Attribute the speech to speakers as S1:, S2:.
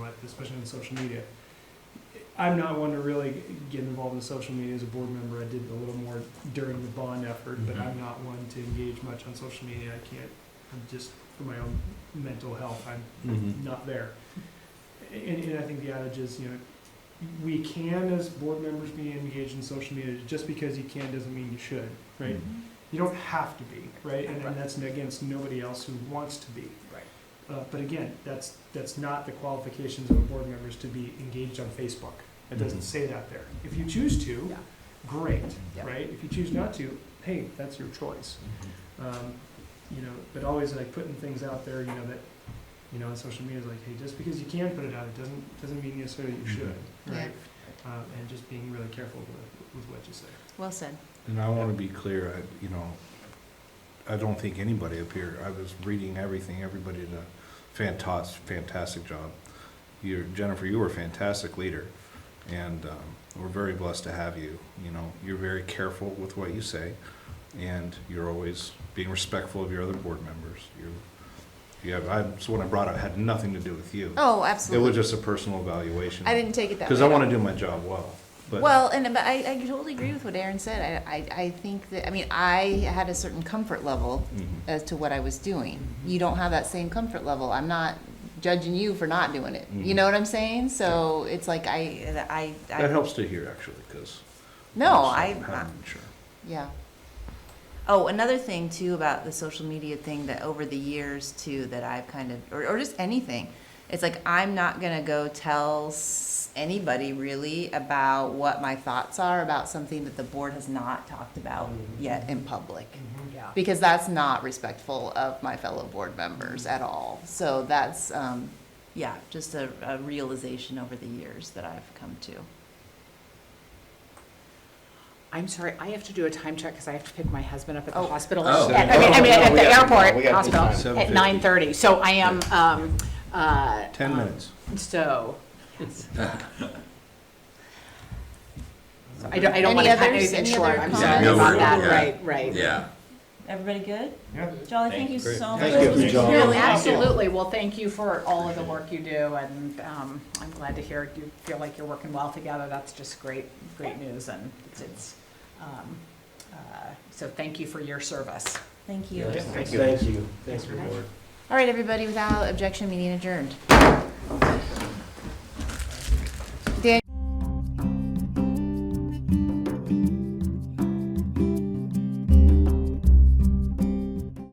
S1: especially on social media. I'm not one to really get involved in social media as a board member. I did a little more during the bond effort, but
S2: Mhm.
S1: I'm not one to engage much on social media. I can't, I'm just, for my own mental health, I'm
S2: Mhm.
S1: not there. And, and I think the adage is, you know, we can as board members be engaged in social media, just because you can doesn't mean you should, right? You don't have to be, right? And, and that's against nobody else who wants to be.
S3: Right.
S1: Uh, but again, that's, that's not the qualifications of a board member is to be engaged on Facebook. It doesn't
S2: Mhm.
S1: say that there. If you choose to,
S3: Mm-hmm. Yeah.
S1: great,
S3: Yeah.
S1: right? If you choose not to, hey, that's your choice um, you know, but always like putting things out there, you know, that, you know, on social media is like, hey, just because you can put it out, it doesn't, doesn't mean necessarily
S3: Mm-hmm.
S1: you should, right? Um, and just being really careful with, with what you say.
S3: Well said.
S2: And I want to be clear, I, you know, I don't think anybody up here, I was reading everything, everybody did a fantastic, fantastic job. You're, Jennifer, you were a fantastic leader, and um, we're very blessed to have you. You know, you're very careful with what you say, and you're always being respectful of your other board members. You, you have, I, so what I brought up had nothing to do with you. It
S3: Oh,
S2: was
S3: absolutely.
S2: just a personal evaluation.
S3: I didn't take it that way.
S2: Because I
S3: at
S2: want to
S3: all.
S2: do my job well, but.
S3: Well, and, but I, I totally agree with what Aaron said. I, I, I think that, I mean, I had a certain comfort level
S2: Mhm.
S3: as to what I was doing. You don't have that same comfort level. I'm not judging you for not doing it. You
S2: Mhm.
S3: know what I'm saying? So it's like I, I, I.
S2: That helps to hear, actually, because.
S3: No, I, I-
S2: Sure.
S3: Yeah. Oh, another thing too about the social media thing that over the years too that I've kind of, or, or just anything, it's like I'm not gonna go tell s- anybody really about what my thoughts are about something that the board has not talked about yet in public.
S4: Yeah.
S3: Because that's not respectful of my fellow board members at all. So that's, um, yeah, just a, a realization over the years that I've come to.
S4: I'm sorry, I have to do a time check because I have to pick my husband up at the
S3: Oh.
S4: hospital.
S2: Oh.
S4: At- I mean, I mean, at the airport, hospital, at
S2: 7:50.
S4: nine thirty. So I am, um, uh.
S2: Ten
S4: um,
S2: minutes.
S4: So, yes. So I don't, I don't
S3: Any
S4: want to cut
S3: others?
S4: anything
S3: Any
S4: short.
S3: other
S4: I'm
S3: comments?
S4: sorry
S5: Yeah,
S4: about
S5: no,
S4: that.
S5: we're- yeah.
S4: Right, right.
S5: Yeah.
S3: Everybody good?
S1: Yeah.
S3: Jolly, thank you so much.
S2: Thank you.
S3: This was
S2: Thank you.
S3: really helpful.
S4: Absolutely. Well, thank you for all of the work you do and, um, I'm glad to hear you feel like you're working well together. That's just great, great news and it's, it's, um, uh, so thank you for your service.
S3: Thank you.
S6: Thank you. Thank you. Thanks for your work.
S3: All right, everybody, without objection, meeting adjourned.